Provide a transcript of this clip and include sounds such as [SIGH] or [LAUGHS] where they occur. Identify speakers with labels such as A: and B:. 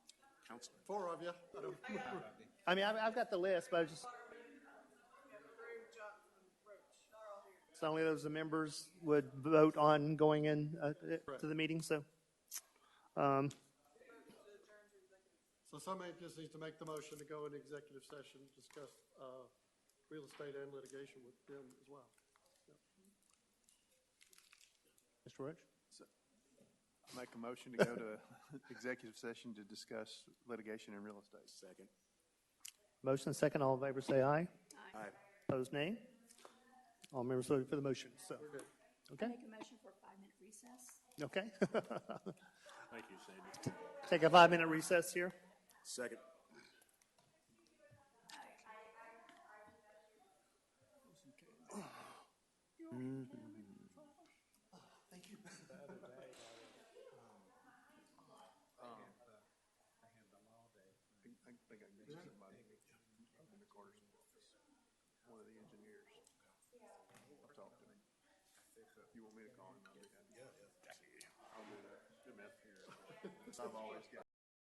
A: council.
B: Four of you. I don't remember.
C: I mean, I've, I've got the list, but I just, it's only those the members would vote on going in uh, to the meeting, so. um,
B: So somebody just needs to make the motion to go into executive session, discuss uh, real estate and litigation with them as well.
C: Mr. Roach?
D: Make a motion to go to [LAUGHS] executive session to discuss litigation in real estate.
A: Second.
C: Motion and second, all in favor say aye.
A: Aye.
C: Opposed, nay. All members voted for the motion, so, okay,
E: Make a motion for a five-minute recess.
C: okay. [LAUGHS]
A: Thank you, Sandy.
C: Take a five-minute recess here.
A: Second.
D: I think I missed somebody in the quarters office, one of the engineers. I talked to him. You want me to call him? I'll do that. I'll do that. I've always got.